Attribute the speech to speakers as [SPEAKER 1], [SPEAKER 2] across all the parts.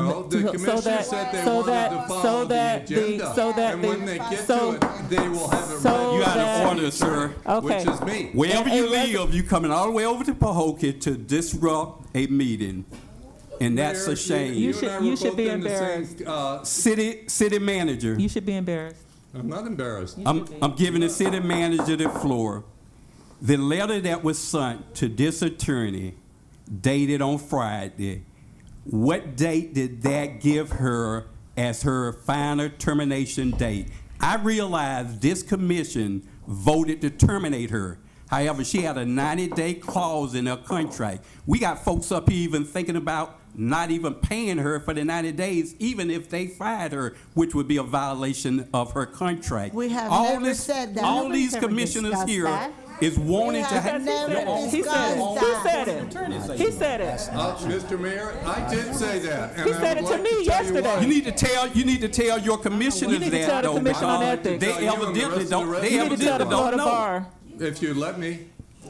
[SPEAKER 1] No, the
[SPEAKER 2] So
[SPEAKER 1] commissioner
[SPEAKER 2] that-
[SPEAKER 1] said they
[SPEAKER 2] so
[SPEAKER 1] wanted
[SPEAKER 2] that-
[SPEAKER 1] to
[SPEAKER 2] so
[SPEAKER 1] follow the
[SPEAKER 2] that the-
[SPEAKER 1] agenda.
[SPEAKER 2] so that
[SPEAKER 1] And
[SPEAKER 2] the-
[SPEAKER 1] when they get to
[SPEAKER 2] so-
[SPEAKER 1] it, they will have it
[SPEAKER 2] so
[SPEAKER 1] ready.
[SPEAKER 3] You out
[SPEAKER 2] that-
[SPEAKER 3] of order, sir.
[SPEAKER 2] Okay.
[SPEAKER 1] Which is me.
[SPEAKER 3] Wherever you
[SPEAKER 2] And- and-
[SPEAKER 3] live, you coming all the way over to Pahokee to disrupt a meeting, and that's
[SPEAKER 1] Mayor,
[SPEAKER 3] a
[SPEAKER 1] you-
[SPEAKER 3] shame.
[SPEAKER 2] You
[SPEAKER 1] and
[SPEAKER 2] should-
[SPEAKER 1] I
[SPEAKER 2] you
[SPEAKER 1] were
[SPEAKER 2] should
[SPEAKER 1] both
[SPEAKER 2] be
[SPEAKER 1] in the same,
[SPEAKER 2] embarrassed.
[SPEAKER 1] uh,
[SPEAKER 3] city city manager,
[SPEAKER 2] You should be embarrassed.
[SPEAKER 1] I'm not embarrassed.
[SPEAKER 2] You
[SPEAKER 3] I'm
[SPEAKER 2] should be.
[SPEAKER 3] I'm giving the city manager the floor. The letter that was sent to this attorney, dated on Friday. What date did that give her as her final termination date? I realize this commission voted to terminate her. However, she had a 90-day clause in her contract. We got folks up here even thinking about not even paying her for the 90 days, even if they fired her, which would be a violation of her contract.
[SPEAKER 4] We have
[SPEAKER 3] All
[SPEAKER 4] never
[SPEAKER 3] this-
[SPEAKER 4] said that.
[SPEAKER 3] All
[SPEAKER 4] Nobody's
[SPEAKER 3] these
[SPEAKER 4] ever
[SPEAKER 3] commissioners
[SPEAKER 4] discussed
[SPEAKER 3] here
[SPEAKER 4] that.
[SPEAKER 3] is wanting to
[SPEAKER 4] have
[SPEAKER 3] have.
[SPEAKER 4] never
[SPEAKER 2] He said it. He said it. He said it.
[SPEAKER 1] Uh, Mr. Mayor, I did say that. and
[SPEAKER 2] He
[SPEAKER 1] I would
[SPEAKER 2] said it to
[SPEAKER 1] like
[SPEAKER 2] me
[SPEAKER 1] tell you
[SPEAKER 2] yesterday.
[SPEAKER 1] why.
[SPEAKER 3] You need to tell, you need to tell your commissioners
[SPEAKER 2] You need to tell
[SPEAKER 3] that
[SPEAKER 2] the
[SPEAKER 3] though,
[SPEAKER 2] Commission on Ethics.
[SPEAKER 3] because they
[SPEAKER 1] Tell you and the
[SPEAKER 3] evidently
[SPEAKER 1] rest of the
[SPEAKER 3] don't, they
[SPEAKER 1] residents.
[SPEAKER 2] You need to tell the
[SPEAKER 3] evidently
[SPEAKER 2] Florida
[SPEAKER 3] don't know.
[SPEAKER 2] bar.
[SPEAKER 1] If you let me.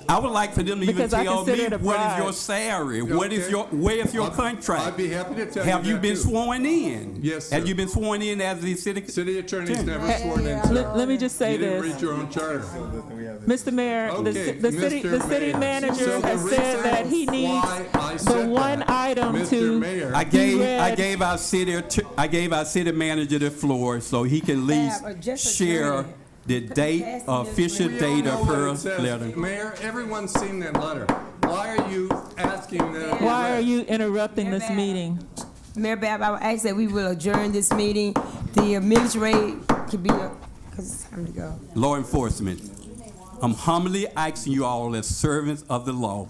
[SPEAKER 3] I would like for them to even
[SPEAKER 2] Because I
[SPEAKER 3] tell me,
[SPEAKER 2] consider it a
[SPEAKER 3] what is your
[SPEAKER 2] bribe.
[SPEAKER 3] salary? What is
[SPEAKER 1] Okay.
[SPEAKER 3] your, where is your
[SPEAKER 1] I'd-
[SPEAKER 3] contract?
[SPEAKER 1] I'd be happy to tell you
[SPEAKER 3] Have you
[SPEAKER 1] that,
[SPEAKER 3] been
[SPEAKER 1] too.
[SPEAKER 3] sworn in?
[SPEAKER 1] Yes, sir.
[SPEAKER 3] Have you been sworn in as the city?
[SPEAKER 1] City attorney's never
[SPEAKER 4] Hey,
[SPEAKER 1] sworn
[SPEAKER 4] yeah.
[SPEAKER 1] in.
[SPEAKER 4] Look,
[SPEAKER 1] sir.
[SPEAKER 2] Let, let me just say
[SPEAKER 1] You didn't
[SPEAKER 2] this,
[SPEAKER 1] read your own charter.
[SPEAKER 2] Mr. Mayor, the,
[SPEAKER 1] Okay,
[SPEAKER 2] ci- the city, the
[SPEAKER 1] Mr.
[SPEAKER 2] city
[SPEAKER 1] Mayor. So
[SPEAKER 2] manager
[SPEAKER 1] the
[SPEAKER 2] has
[SPEAKER 1] reason
[SPEAKER 2] said that he needs
[SPEAKER 1] why I
[SPEAKER 2] the
[SPEAKER 1] said
[SPEAKER 2] one
[SPEAKER 1] that,
[SPEAKER 2] item
[SPEAKER 1] Mr.
[SPEAKER 2] to.
[SPEAKER 1] Mayor,
[SPEAKER 3] I gave,
[SPEAKER 2] You
[SPEAKER 3] I
[SPEAKER 2] read-
[SPEAKER 3] gave our city, att- I gave our city manager the floor so he can at
[SPEAKER 5] Fab, or
[SPEAKER 3] least
[SPEAKER 5] just
[SPEAKER 3] share
[SPEAKER 5] attorney.
[SPEAKER 3] the date, uh,
[SPEAKER 5] Passing this
[SPEAKER 3] official
[SPEAKER 5] way.
[SPEAKER 1] We all
[SPEAKER 3] date
[SPEAKER 1] know
[SPEAKER 3] of
[SPEAKER 1] what
[SPEAKER 3] her
[SPEAKER 1] it says.
[SPEAKER 3] letter.
[SPEAKER 1] Mayor, everyone's seen that letter. Why are you asking that? it be
[SPEAKER 2] Why are
[SPEAKER 1] read?
[SPEAKER 2] you interrupting this
[SPEAKER 5] They're bad.
[SPEAKER 2] meeting?
[SPEAKER 5] Mayor Bab, I would ask that we will adjourn this meeting. The administrator could be, because it's time to go.
[SPEAKER 3] Law enforcement, I'm humbly asking you all as servants of the law,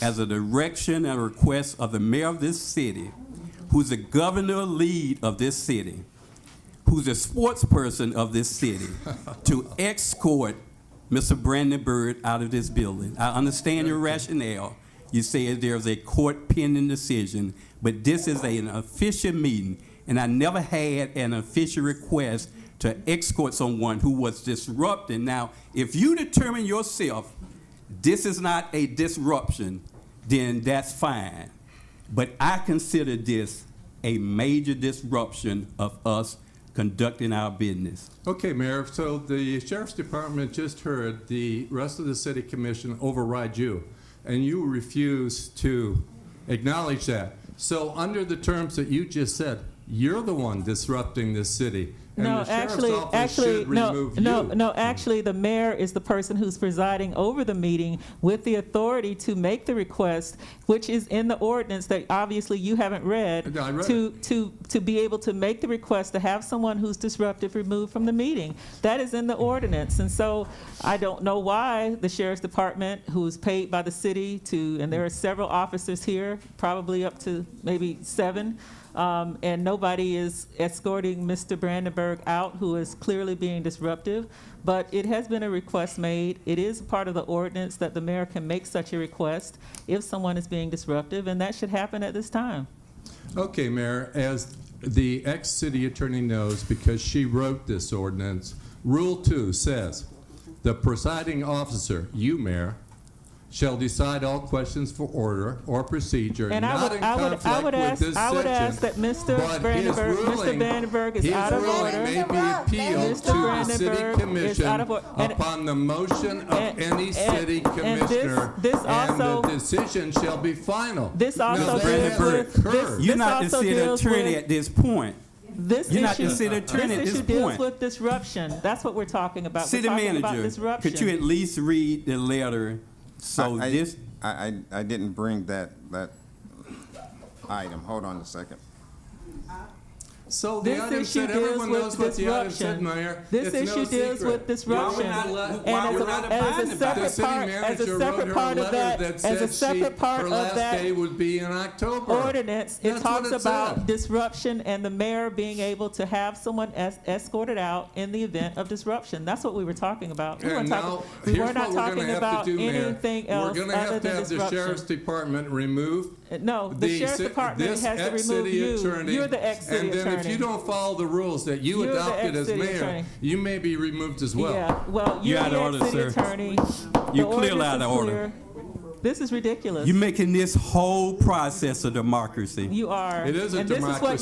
[SPEAKER 3] as a direction and request of the mayor of this city, who's the governor lead of this city, who's a sports person of this city, to escort Mr. Brandon Byrd out of this building. I understand your rationale. You say there's a court pending decision, but this is an official meeting, and I never had an official request to escort someone who was disrupting. Now, if you determine yourself, this is not a disruption, then that's fine. But I consider this a major disruption of us conducting our business.
[SPEAKER 1] Okay, Mayor, so the sheriff's department just heard the rest of the city commission override you, and you refuse to acknowledge that. So under the terms that you just said, you're the one disrupting this city. and
[SPEAKER 2] No,
[SPEAKER 1] the sheriff's
[SPEAKER 2] actually,
[SPEAKER 1] office
[SPEAKER 2] actually,
[SPEAKER 1] should
[SPEAKER 2] no,
[SPEAKER 1] remove
[SPEAKER 2] no,
[SPEAKER 1] you.
[SPEAKER 2] no, actually, the mayor is the person who's presiding over the meeting with the authority to make the request, which is in the ordinance that obviously you haven't read.
[SPEAKER 1] No, I read
[SPEAKER 2] To, to, to be able to make the request to have someone who's disruptive removed from the meeting. That is in the ordinance. And so I don't know why the sheriff's department, who is paid by the city to, and there are several officers here, probably up to maybe seven, um, and nobody is escorting Mr. Brandenburg out, who is clearly being disruptive. But it has been a request made. It is part of the ordinance that the mayor can make such a request if someone is being disruptive, and that should happen at this time.
[SPEAKER 1] Okay, Mayor, as the ex-city attorney knows, because she wrote this ordinance, Rule 2 says, "The presiding officer, you, Mayor, shall decide all questions for order or procedure
[SPEAKER 2] And I
[SPEAKER 1] not
[SPEAKER 2] would,
[SPEAKER 1] in
[SPEAKER 2] I would, I
[SPEAKER 1] conflict
[SPEAKER 2] would
[SPEAKER 1] with
[SPEAKER 2] ask,
[SPEAKER 1] this
[SPEAKER 2] I would ask that
[SPEAKER 1] section."
[SPEAKER 2] Mr.
[SPEAKER 1] But his
[SPEAKER 2] Brandenburg, Mr.
[SPEAKER 1] ruling-
[SPEAKER 2] Brandenburg is
[SPEAKER 1] his
[SPEAKER 2] out of
[SPEAKER 1] ruling
[SPEAKER 2] order.
[SPEAKER 1] may be appealed
[SPEAKER 2] Mr.
[SPEAKER 1] to the city
[SPEAKER 2] Brandenburg is
[SPEAKER 1] commission
[SPEAKER 2] out of or- and-
[SPEAKER 1] upon the motion of
[SPEAKER 2] and-
[SPEAKER 1] any
[SPEAKER 2] and-
[SPEAKER 1] city
[SPEAKER 2] and this-
[SPEAKER 1] commissioner,
[SPEAKER 2] this
[SPEAKER 1] and the
[SPEAKER 2] also-
[SPEAKER 1] decision shall be final.
[SPEAKER 2] This
[SPEAKER 1] Now,
[SPEAKER 2] also
[SPEAKER 1] that
[SPEAKER 3] deals
[SPEAKER 1] has
[SPEAKER 3] with-
[SPEAKER 1] occurred.
[SPEAKER 2] this-
[SPEAKER 3] You're not the
[SPEAKER 2] also
[SPEAKER 3] city
[SPEAKER 2] deals
[SPEAKER 3] attorney
[SPEAKER 2] with-
[SPEAKER 3] at this point.
[SPEAKER 2] This
[SPEAKER 3] You're not the
[SPEAKER 2] issue,
[SPEAKER 3] city
[SPEAKER 2] this
[SPEAKER 3] attorney at
[SPEAKER 2] issue
[SPEAKER 3] this
[SPEAKER 2] deals
[SPEAKER 3] point.
[SPEAKER 2] with disruption. That's what we're talking about. We're
[SPEAKER 3] City
[SPEAKER 2] talking about
[SPEAKER 3] manager, could you at
[SPEAKER 2] disruption.
[SPEAKER 3] least read the letter? So
[SPEAKER 6] I- I-
[SPEAKER 3] this,
[SPEAKER 6] I, I, I didn't bring that, that item. Hold on a second.
[SPEAKER 1] So the
[SPEAKER 2] This
[SPEAKER 1] item
[SPEAKER 2] issue
[SPEAKER 1] said,
[SPEAKER 2] deals
[SPEAKER 1] everyone
[SPEAKER 2] with
[SPEAKER 1] knows what the item said,
[SPEAKER 2] disruption.
[SPEAKER 1] Mayor. It's
[SPEAKER 2] This
[SPEAKER 1] no
[SPEAKER 2] issue deals
[SPEAKER 1] secret.
[SPEAKER 2] with disruption.
[SPEAKER 1] Why we're not
[SPEAKER 2] And
[SPEAKER 1] why
[SPEAKER 2] as
[SPEAKER 1] we're
[SPEAKER 2] a-
[SPEAKER 1] not
[SPEAKER 2] as a
[SPEAKER 1] abiding by
[SPEAKER 2] separate
[SPEAKER 1] it?
[SPEAKER 2] part- as a
[SPEAKER 1] The city
[SPEAKER 2] separate
[SPEAKER 1] manager
[SPEAKER 2] part
[SPEAKER 1] wrote
[SPEAKER 2] of
[SPEAKER 1] her a
[SPEAKER 2] that-
[SPEAKER 1] letter that
[SPEAKER 2] as a
[SPEAKER 1] said she,
[SPEAKER 2] separate part
[SPEAKER 1] her
[SPEAKER 2] of
[SPEAKER 1] last
[SPEAKER 2] that
[SPEAKER 1] day would be in October.
[SPEAKER 2] Ordinance, it
[SPEAKER 1] That's what
[SPEAKER 2] talks about
[SPEAKER 1] said.
[SPEAKER 2] disruption and the mayor being able to have someone es- escorted out in the event of disruption. That's what we were talking about. We weren't
[SPEAKER 1] And now,
[SPEAKER 2] talking, we
[SPEAKER 1] here's
[SPEAKER 2] were
[SPEAKER 1] what
[SPEAKER 2] not
[SPEAKER 1] we're
[SPEAKER 2] talking
[SPEAKER 1] gonna have
[SPEAKER 2] about
[SPEAKER 1] to do, Mayor.
[SPEAKER 2] anything
[SPEAKER 1] We're
[SPEAKER 2] else
[SPEAKER 1] gonna
[SPEAKER 2] other
[SPEAKER 1] have to
[SPEAKER 2] than
[SPEAKER 1] have the sheriff's
[SPEAKER 2] disruption.
[SPEAKER 1] department removed.
[SPEAKER 2] Uh, No, the sheriff's
[SPEAKER 1] ci-
[SPEAKER 2] department
[SPEAKER 1] this
[SPEAKER 2] has to remove
[SPEAKER 1] ex-city
[SPEAKER 2] you.
[SPEAKER 1] attorney,
[SPEAKER 2] You're the ex-city
[SPEAKER 1] And then if you
[SPEAKER 2] attorney.
[SPEAKER 1] don't follow the rules that you
[SPEAKER 2] You're the
[SPEAKER 1] adopted as
[SPEAKER 2] ex-city
[SPEAKER 1] mayor,
[SPEAKER 2] attorney.
[SPEAKER 1] you may be removed as well.
[SPEAKER 2] Yeah, well,
[SPEAKER 3] You
[SPEAKER 2] you're
[SPEAKER 3] out of
[SPEAKER 2] the
[SPEAKER 3] order,
[SPEAKER 2] ex-city
[SPEAKER 3] sir.
[SPEAKER 2] attorney.
[SPEAKER 3] You
[SPEAKER 2] The
[SPEAKER 3] clearly
[SPEAKER 2] ordinance
[SPEAKER 3] out of
[SPEAKER 2] is
[SPEAKER 3] order.
[SPEAKER 2] clear. This is ridiculous.
[SPEAKER 3] You're making this whole process a democracy.
[SPEAKER 2] You are.
[SPEAKER 1] It is a
[SPEAKER 2] And this is what
[SPEAKER 1] democracy.